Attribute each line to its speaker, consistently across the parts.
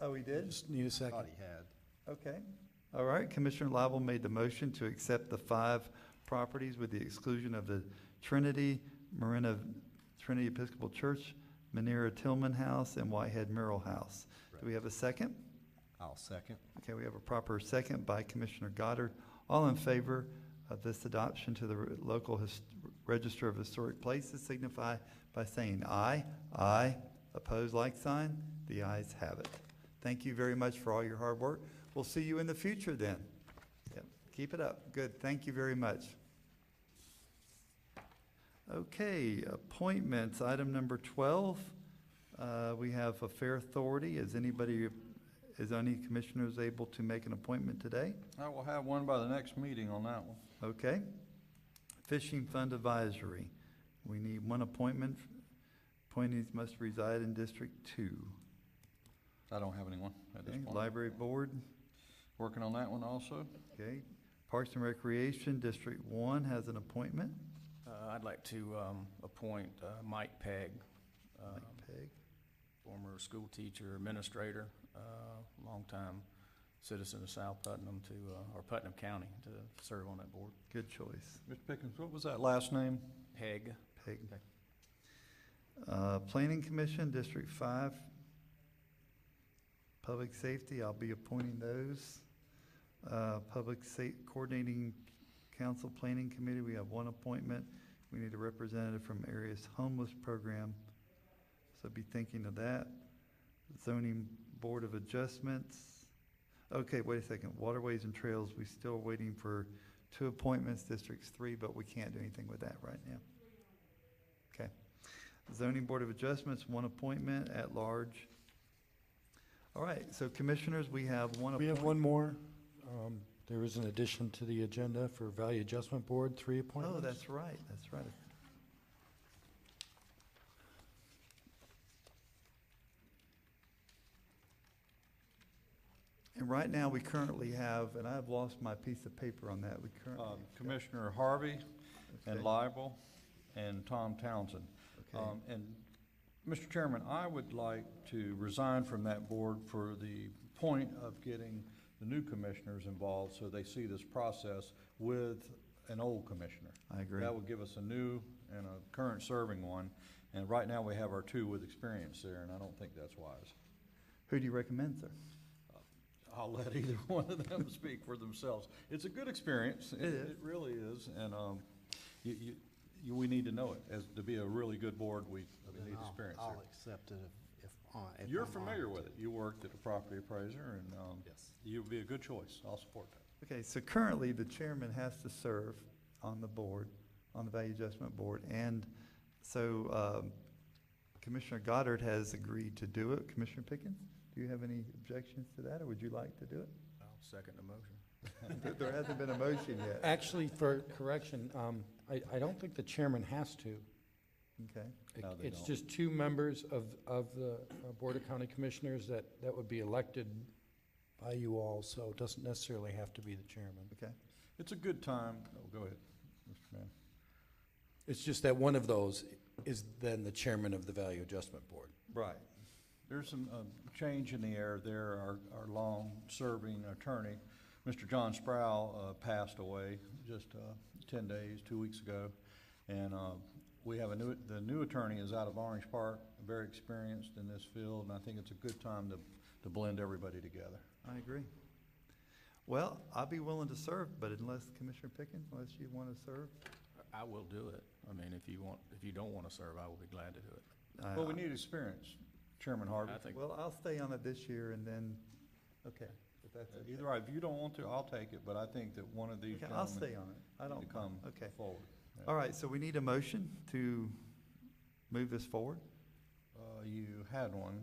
Speaker 1: Oh, he did?
Speaker 2: Just need a
Speaker 3: Thought
Speaker 2: second.
Speaker 3: he had.
Speaker 1: Okay. All right, Commissioner Lible made the motion to accept the five properties with the exclusion of the Trinity, Marina Trinity Episcopal Church, Manera Tillman House, and Whitehead Merrill House. Do we have a second?
Speaker 3: I'll second.
Speaker 1: Okay, we have a proper second by Commissioner Goddard. All in favor of this adoption to the r- local his- register of historic places signify by saying aye. Aye. Opposed, like sign. The ayes have it. Thank you very much for all your hard work. We'll see you in the future then. Yep, keep it up. Good, thank you very much. Okay, appointments, item number twelve. Uh, we have a fair authority. Is anybody is any commissioners able to make an appointment today?
Speaker 4: I will have one by the next meeting on that one.
Speaker 1: Okay. Fishing Fund Advisory, we need one appointment. Appointees must reside in District Two.
Speaker 4: I don't have anyone at this
Speaker 1: Okay,
Speaker 4: point.
Speaker 1: Library Board,
Speaker 4: Working on that one also.
Speaker 1: okay. Parks and Recreation, District One has an appointment.
Speaker 5: Uh, I'd like to um, appoint uh, Mike Pegg, um,
Speaker 1: Mike Peg.
Speaker 5: former school teacher, administrator, uh, longtime citizen of South Putnam to, uh, or Putnam County, to serve on that board.
Speaker 1: Good choice,
Speaker 4: Mr. Pickens, what was that last name?
Speaker 5: Pegg,
Speaker 1: Peg.
Speaker 5: Okay.
Speaker 1: Uh, Planning Commission, District Five. Public Safety, I'll be appointing those. Uh, Public Sa- Coordinating Council Planning Committee, we have one appointment. We need a representative from Area's Homeless Program, so be thinking of that. Zoning Board of Adjustments. Okay, wait a second, Waterways and Trails, we still waiting for two appointments, Districts Three, but we can't do anything with that right now. Okay. Zoning Board of Adjustments, one appointment at large. All right, so commissioners, we have one
Speaker 2: We have
Speaker 1: appointment.
Speaker 2: one more. Um, There is an addition to the agenda for Value Adjustment Board, three appointments.
Speaker 1: Oh, that's right, that's right. And right now, we currently have, and I've lost my piece of paper on that, we
Speaker 4: Um,
Speaker 1: currently.
Speaker 4: Commissioner Harvey and
Speaker 1: Okay,
Speaker 4: Lible and Tom Townsend.
Speaker 1: okay.
Speaker 4: Um, and, Mr. Chairman, I would like to resign from that board for the point of getting the new commissioners involved so they see this process with an old commissioner.
Speaker 1: I agree.
Speaker 4: That would give us a new and a current serving one, and right now we have our two with experience there, and I don't think that's wise.
Speaker 1: Who do you recommend, sir?
Speaker 4: I'll let either one of them speak for themselves. It's a good experience. It,
Speaker 1: is.
Speaker 4: it really is, and, um, you, you, you, we need to know it. As, to be a really good board, we, we
Speaker 3: Then
Speaker 4: need
Speaker 3: I'll-
Speaker 4: experience there.
Speaker 3: I'll accept it if, if on. if
Speaker 4: You're
Speaker 3: I'm on
Speaker 4: familiar with it. You worked at a property appraiser, and, um,
Speaker 3: Yes.
Speaker 4: you'd be a good choice. I'll support that.
Speaker 1: Okay, so currently, the chairman has to serve on the board, on the Value Adjustment Board, and so um, Commissioner Goddard has agreed to do it. Commissioner Pickens, do you have any objections to that, or would you like to do it?
Speaker 5: I'll second the motion.
Speaker 1: There- There hasn't been a motion yet.
Speaker 2: Actually, for correction, um, I, I don't think the chairman has to.
Speaker 1: Okay,
Speaker 2: It-
Speaker 4: No, they
Speaker 2: It's
Speaker 4: don't.
Speaker 2: just two members of, of the uh, Board of County Commissioners that, that would be elected by you all, so it doesn't necessarily have to be the chairman.
Speaker 1: okay.
Speaker 4: It's a good time. Oh, go ahead, Mr. Mann.
Speaker 6: It's just that one of those is then the chairman of the Value Adjustment Board.
Speaker 4: Right. There's some, um, change in the air there. Our, our long-serving attorney, Mr. John Sproul, uh, passed away just, uh, ten days, two weeks ago. And, uh, we have a new, the new attorney is out of Orange Park, very experienced in this field, and I think it's a good time to, to blend everybody together.
Speaker 1: I agree. Well, I'd be willing to serve, but unless Commissioner Pickens, unless you want to serve.
Speaker 5: I will do it. I mean, if you want, if you don't want to serve, I will be glad to do it.
Speaker 1: I-
Speaker 4: Well, we need experience, Chairman Harvey.
Speaker 5: I think,
Speaker 1: Well, I'll stay on it this year and then, okay, if that's okay.
Speaker 4: Either, if you don't want to, I'll take it, but I think that one of these
Speaker 1: Okay, I'll stay on
Speaker 4: gentlemen
Speaker 1: it. I
Speaker 4: need to
Speaker 1: don't, mind.
Speaker 4: come
Speaker 1: okay.
Speaker 4: forward.
Speaker 1: All right, so we need a motion to move this forward.
Speaker 4: Uh, you had one,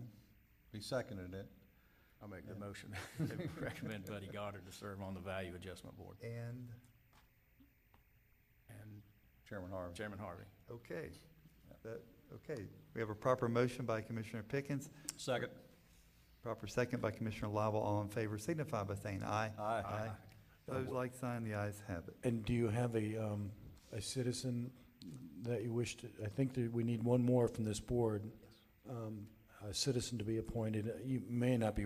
Speaker 4: he seconded it.
Speaker 5: I'll make the motion. Recommend Buddy Goddard to serve on the Value Adjustment Board
Speaker 1: And,
Speaker 5: and
Speaker 4: Chairman Harvey.
Speaker 5: Chairman Harvey.
Speaker 1: okay, that, okay. We have a proper motion by Commissioner Pickens,
Speaker 4: Second.
Speaker 1: proper second by Commissioner Lible. All in favor signify by saying aye.
Speaker 4: Aye.
Speaker 1: Those like sign, the ayes have it.
Speaker 2: And do you have a, um, a citizen that you wish to, I think that we need one more from this board. Um, A citizen to be appointed. You may not be